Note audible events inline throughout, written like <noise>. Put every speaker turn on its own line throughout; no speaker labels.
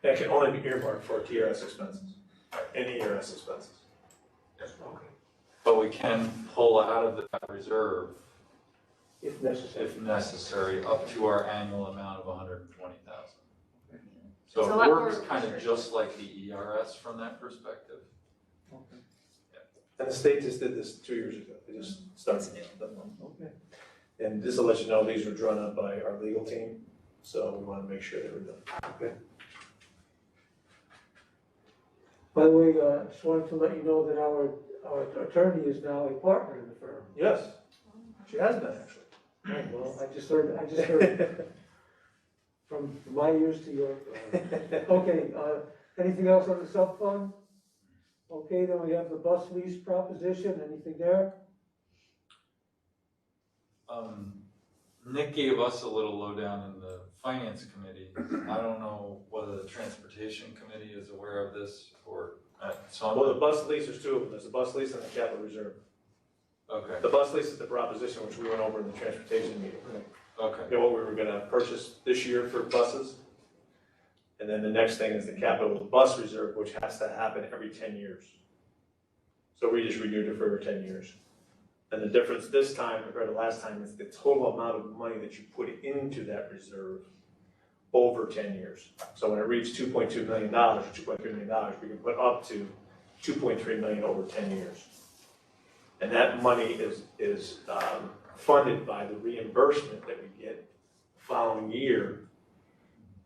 That can only be earmarked for TRS expenses, any ERS expenses.
But we can pull out of that reserve
if necessary.
if necessary, up to our annual amount of hundred and twenty thousand. So
It's a
it
lot more
works kind of
restrictive.
just like the ERS from that perspective.
And the state just did this two years ago, they just started that one.
Okay.
And just to let you know, these were drawn up by our legal team, so we wanna make sure they were done.
By the way, uh, just wanted to let you know that our, our attorney is now a partner in the firm.
Yes, she has been actually.
Right, Well, I just heard, I just heard from my ears to your. Okay, uh, anything else on the sub fund? Okay, then we have the bus lease proposition, anything there?
Um, Nick gave us a little lowdown in the finance committee. I don't know whether the transportation committee is aware of this or, uh, so
<laughs>
I'm.
Well, the bus lease, there's two of them, there's the bus lease and the capital reserve.
Okay,
The bus lease is the proposition which we went over in the transportation meeting.
okay,
You know, what we were gonna purchase this year for buses. And then the next thing is the capital bus reserve, which has to happen every ten years. So we just renewed it for every ten years. And the difference this time compared to last time is the total amount of money that you put into that reserve over ten years. So when it reaches two point two million dollars, or two point three million dollars, we can put up to two point three million over ten years. And that money is, is, um, funded by the reimbursement that we get following year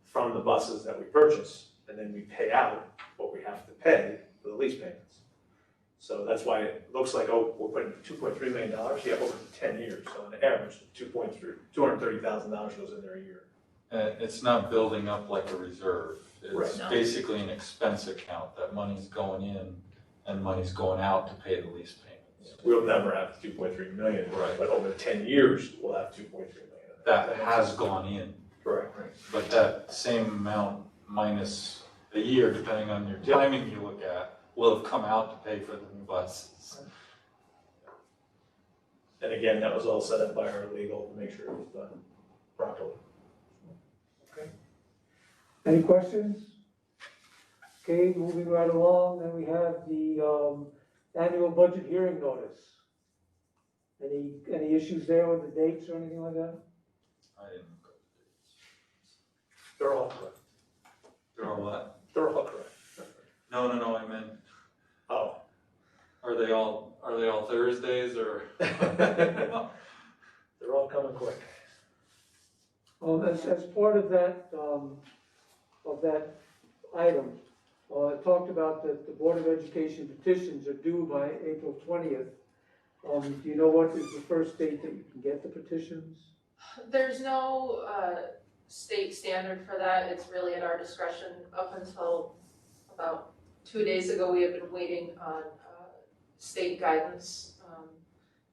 from the buses that we purchase, and then we pay out what we have to pay for the lease payments. So that's why it looks like, oh, we're putting two point three million dollars, yeah, over ten years, so on average, two point three, two hundred thirty thousand dollars goes in there a year.
Uh, it's not building up like a reserve. It's
Right.
No.
basically an expense account, that money's going in and money's going out to pay the lease payments.
We'll never have two point three million,
Right.
but over ten years, we'll have two point three million.
That has gone in.
Correct.
But that same amount minus a year, depending on your
Yep.
timing you look at, will have come out to pay for the new buses.
And again, that was all set up by our legal to make sure it was done properly.
Any questions? Okay, moving right along, then we have the, um, annual budget hearing notice. Any, any issues there with the dates or anything like that?
I didn't go to
They're all correct,
the They're all what?
they're all correct.
No, no, no, I meant,
Oh, <laughs>
are they all, are they all Thursdays <laughs> or?
They're all coming quick.
Um, as, as part of that, um, of that item, uh, it talked about that the Board of Education petitions are due by April twentieth. Um, do you know what is the first date that you can get the petitions?
There's no uh, state standard for that, it's really at our discretion. Up until about two days ago, we have been waiting on uh, state guidance. Um,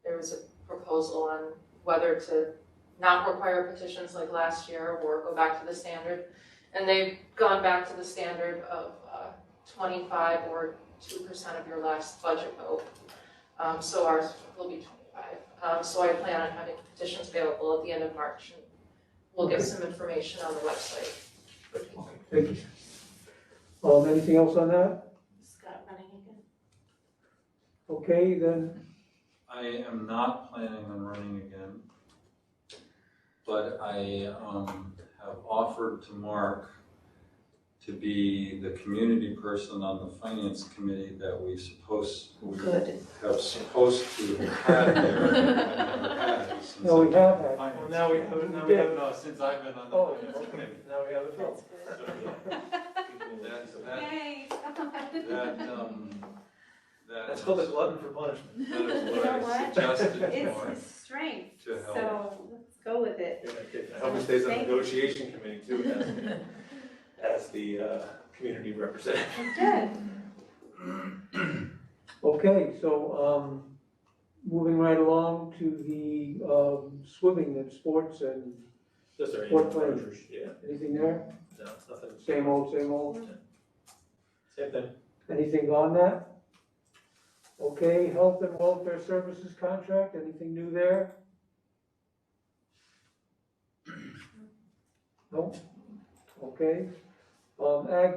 There was a proposal on whether to not require petitions like last year or go back to the standard. And they've gone back to the standard of uh, twenty-five or two percent of your last budget vote. Um, So ours will be twenty-five. Um, so I plan on having petitions available at the end of March, and we'll get some information on the website.
Thank you. Um, anything else on that?
Scott running again?
Okay, then,
I am not planning on running again. But I, um, have offered to Mark to be the community person on the finance committee that we supposed, we
Good.
have supposed to have had there. and I've never
<laughs>
had it since
no,
I've
we
been
have
on
that.
finance.
now
we have-
No, since I've been on
Oh,
the finance committee.
Now we have it.
That's good.
That, that,
<laughs>
Yay.
Oh. that, um, that.
That's called a
is-
glutton for punishment.
That is
You
what
know
I
what?
suggested to
It's
Mark
his strength,
to help.
so let's go with it.
You're not kidding. I hope he stays on the negotiation committee too, <laughs> as, as the, uh, community representative.
Good.
Okay, so, um, moving right along to the, um, swimming and sports and
Just our
Fourth
annual
grade.
rogers, yeah,
anything there?
no, nothing.
Same old, same old?
Same thing.
Anything on that? Okay, health and welfare services contract, anything new there? No? Okay. Um, ag